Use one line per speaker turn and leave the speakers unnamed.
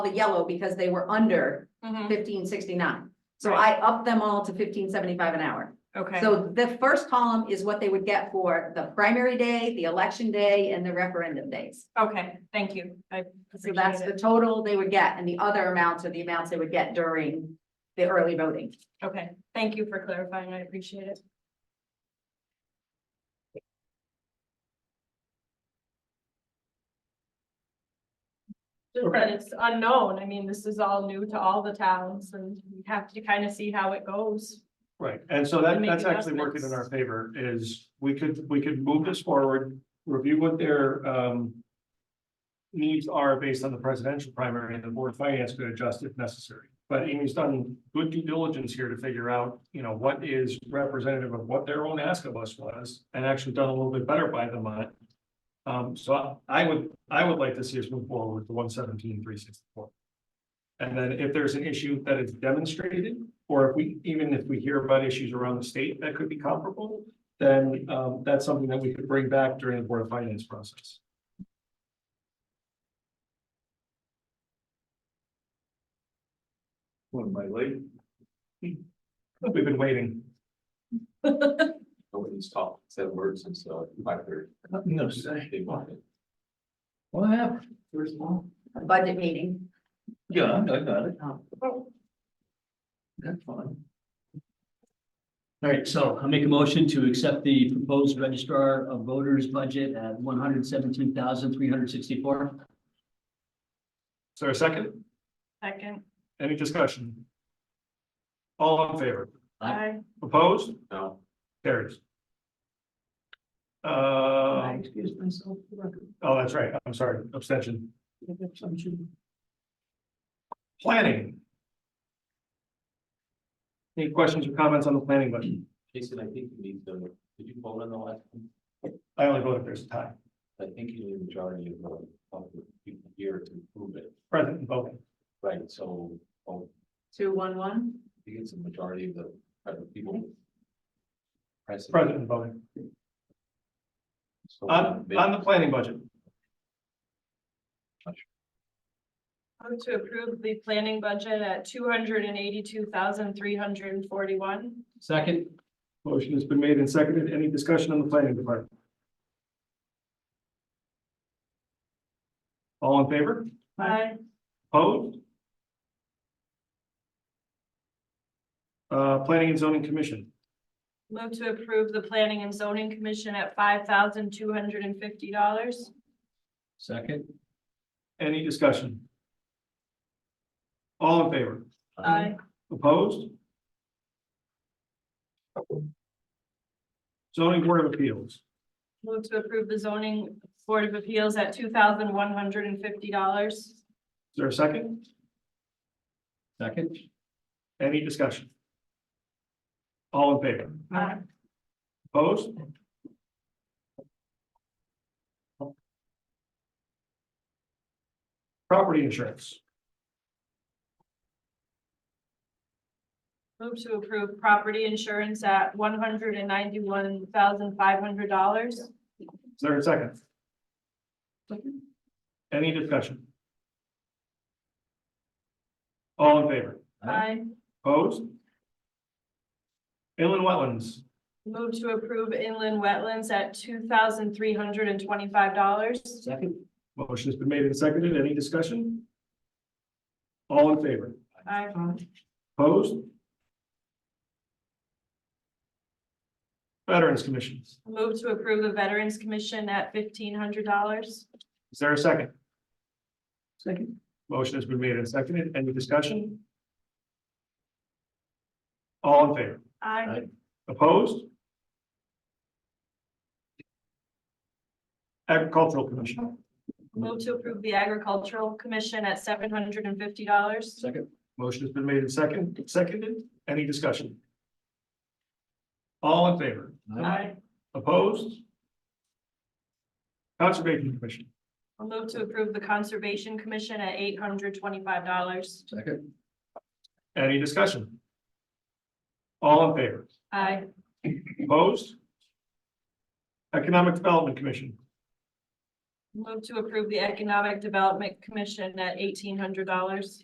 the yellow because they were under
Mhm.
fifteen sixty-nine. So
Right.
I upped them all to fifteen seventy-five an hour.
Okay,
So the first column is what they would get for the primary day, the election day, and the referendum days.
okay, thank you. I
So that's
appreciate
the
it.
total they would get, and the other amounts are the amounts they would get during the early voting.
Okay, thank you for clarifying. I appreciate it. Just that it's unknown. I mean, this is all new to all the towns and we have to kind of see how it goes.
Right, and so that,
And make
that's actually working in our
adjustments.
favor is we could, we could move this forward, review what their um. Needs are based on the presidential primary and the board of finance could adjust if necessary. But Amy's done good due diligence here to figure out, you know, what is representative of what their own ask of us was and actually done a little bit better by them on it. Um, so I- I would, I would like to see us move forward with the one seventeen, three sixty-four. And then if there's an issue that is demonstrated, or if we, even if we hear about issues around the state that could be comparable, then um, that's something that we could bring back during the Board of Finance process.
What am I late?
We've been waiting.
Nobody's talked, said words since uh five thirty.
No,
They wanted.
What happened? First of all,
A budget meeting.
yeah, I got it.
Oh.
That's fine. All right, so I make a motion to accept the proposed registrar of voters budget at one hundred seventeen thousand three hundred sixty-four.
Is there a second?
Second,
Any discussion? All in favor?
I,
Opposed?
No,
Carries. Uh,
excuse myself for the record?
oh, that's right. I'm sorry. Abstention.
Assumption.
Planning. Any questions or comments on the planning budget?
Jason, I think you need to, did you vote on the last one?
I only vote if there's a tie.
I think you need a majority of the of the people here to prove it,
Present and voting.
right? So, oh,
Two, one, one.
I think it's a majority of the of the people. Present.
Present and voting.
So,
On,
they-
on the planning budget,
I'm to approve the planning budget at two hundred and eighty-two thousand, three hundred and forty-one.
Second,
motion has been made and seconded. Any discussion on the planning department? All in favor?
I,
Opposed? Uh, Planning and Zoning Commission,
Move to approve the planning and zoning commission at five thousand two hundred and fifty dollars.
second,
any discussion? All in favor?
I,
Opposed? Zoning Board of Appeals,
move to approve the zoning board of appeals at two thousand one hundred and fifty dollars.
is there a second?
second,
Any discussion? All in favor?
Aye.
Opposed? Property insurance,
Move to approve property insurance at one hundred and ninety-one thousand five hundred dollars.
is there a second? Any discussion? All in favor,
I,
opposed? Inland wetlands,
move to approve inland wetlands at two thousand three hundred and twenty-five dollars.
second,
motion's been made and seconded, any discussion? All in favor,
I,
opposed? Veterans Commissions,
move to approve the veterans commission at fifteen hundred dollars.
is there a second?
second,
Motion has been made and seconded. Any discussion? All in favor?
I,
Aye.
Opposed? Agricultural Commission.
Move to approve the agricultural commission at seven hundred and fifty dollars.
second,
Motion has been made and second, seconded. Any discussion? All in favor?
I
Opposed? Conservation Commission.
will move to approve the conservation commission at eight hundred twenty-five dollars.
second,
Any discussion? All in favor?
I
Opposed? Economic Development Commission.
Move to approve the Economic Development Commission at eighteen hundred dollars.